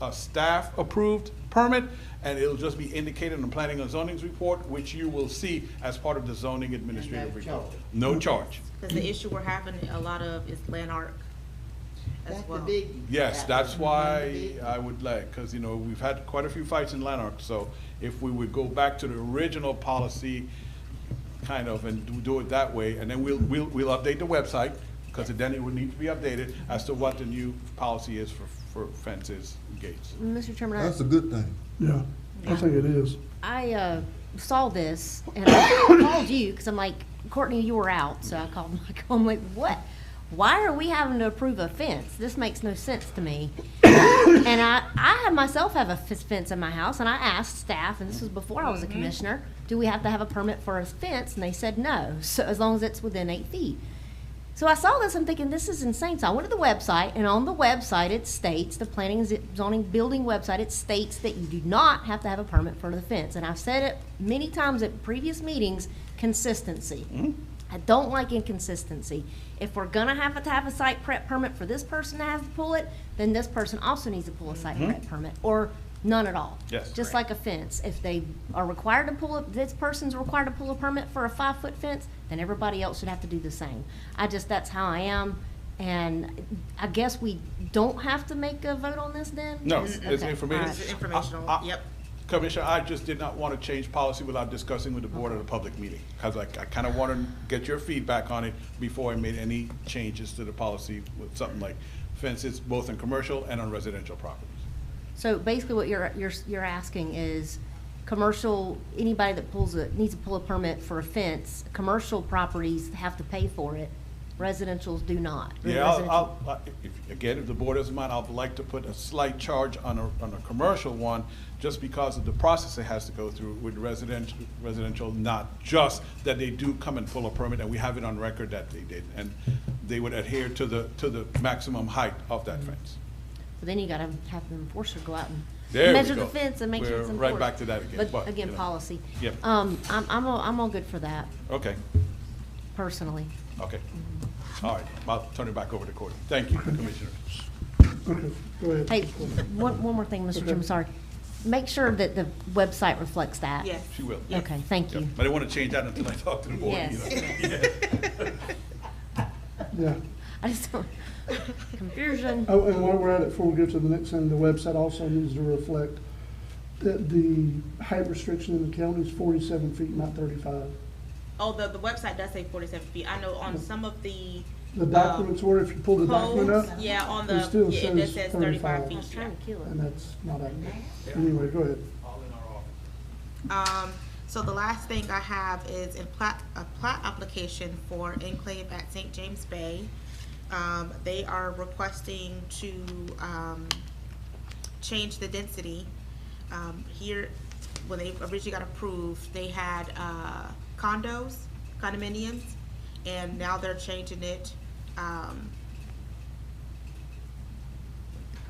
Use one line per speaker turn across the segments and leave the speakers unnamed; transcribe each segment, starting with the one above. a staff-approved permit, and it'll just be indicated in the planning and zoning's report, which you will see as part of the zoning administrative
And no
report.
charge.
No charge.
Because the issue we're having a lot of is land art as
That's the
well.
biggie.
Yes, that's
the
why uh,
biggie.
I would like, because, you know, we've had quite a few fights in Lanark, so if we would go back to the original policy, kind of, and do- do it that way, and then we'll, we'll, we'll update the website, because then it would need to be updated as to what the new policy is for, for fences, gates.
Mr. Chairman, I-
That's a good thing.
Yeah, I think it is.
I uh, saw this and I called you because I'm like, Courtney, you were out. So I called Michael. I'm like, what? Why are we having to approve a fence? This makes no sense to me. and I, I have myself have a f- fence in my house and I asked staff, and this was before I was a commissioner, do we have to have a permit for a fence? And they said no, so as long as it's within eight feet. So I saw this, I'm thinking, this is insane. So I went to the website, and on the website, it states, the planning and zi- zoning building website, it states that you do not have to have a permit for the fence. And I've said it many times at previous meetings, consistency. I don't like inconsistency. If we're gonna have to have a site prep permit for this person to have to pull it, then this person also needs to pull a site prep permit, or none at all.
Yes.
Just like a fence, if they are required to pull, a- this person's required to pull a permit for a five-foot fence, then everybody else should have to do the same. I just, that's how I am, and I guess we don't have to make a vote on this then?
No,
Is-
it's
okay,
information.
all right.
It's informational,
I- I-
yep.
Commissioner, I just did not want to change policy without discussing with the board at a public meeting, because I, I kind of want to get your feedback on it before I made any changes to the policy with something like fences, both in commercial and on residential properties.
So basically what you're, you're, you're asking is, commercial, anybody that pulls a, needs to pull a permit for a fence, commercial properties have to pay for it, residentials do not.
Yeah, I'll,
Residential-
I'll, I- if, again, if the board doesn't mind, I'd like to put a slight charge on a, on a commercial one, just because of the process it has to go through with residential, residential, not just that they do come and pull a permit, and we have it on record that they did, and they would adhere to the, to the maximum height of that fence.
But then you gotta have the enforcer go out and
There we
measure
go.
the fence and make sure it's
We're
enforced.
right back to that again, but,
But again,
you know.
policy.
Yep.
Um, I'm, I'm, all- I'm all good for that,
Okay,
personally.
okay. All right, I'll turn it back over to Courtney. Thank you, Commissioner.
Okay, go ahead.
Hey, one, one more thing, Mr. Jim, sorry. Make sure that the website reflects that.
Yes.
She will.
Okay, thank
Yep.
you.
I didn't want to change that until I talked to the board, you know.
Yes.
Yeah.
I just, don't- confusion.
Oh, and while we're at it, before we go to the next thing, the website also needs to reflect that the height restriction in the county is forty-seven feet, not thirty-five.
Oh, the, the website does say forty-seven feet. I know on some of the.
The documents were, if you pull the document
Codes,
up,
yeah, on
it
the,
still
yeah, it does says
says
thirty-five
35.
I
feet.
was trying to kill it.
and that's not accurate. Anyway, go ahead.
Um, so the last thing I have is a plat, a plat application for enclave at St. James Bay. Um, they are requesting to, um, change the density. Um, here, when they originally got approved, they had, uh, condos, condominiums, and now they're changing it, um,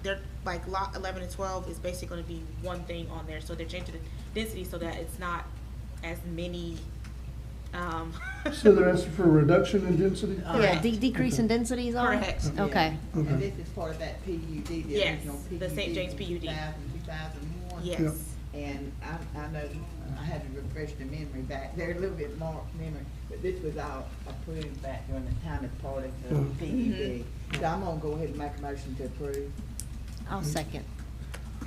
they're like lot eleven and twelve is basically gonna be one thing on there, so they're changing the density so that it's not as many, um.
So they're asking for a reduction in density?
Yeah, de- decrease in density is all right?
Correct.
Okay.
Okay.
And this is part of that PUD, the
Yes,
original PUD.
the St. James
from
PUD.
2000, 2001.
Yeah.
Yes,
And I, I know, I had to refresh the memory back, there a little bit more memory, but this was all approved back during the time as part of the
Mhm.
PUD.
Mm-hmm.
So I'm gonna go ahead and make a motion to approve.
I'll second.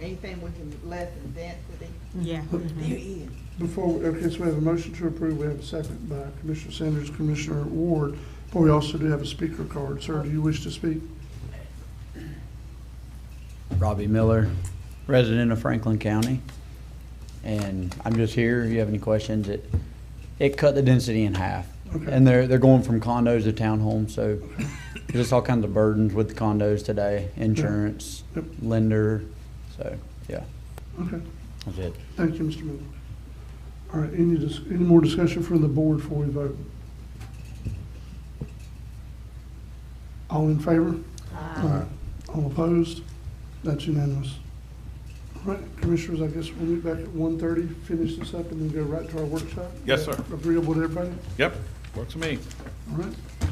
Anything we can lessen density,
yeah.
there is.
Before, we- okay, so we have a motion to approve, we have a second by Commissioner Sanders, Commissioner Ward, but we also do have a speaker card. Sir, do you wish to speak?
Robbie Miller, resident of Franklin County. And I'm just here, if you have any questions, it, it cut the density in half. And they're, they're going from condos to townhomes, so there's all kinds of burdens with condos today, insurance,
Yep.
lender, so, yeah,
Okay,
that's it.
thank you, Mr. Miller. All right, any, dis- any more discussion from the board before we vote? All in favor? Aye. All opposed? That's unanimous. All right, commissioners, I guess we'll meet back at 1:30, finish this up, and then go right to our workshop?
Yes, sir.
Agreeable to everybody?
Yep, works for me.
All right,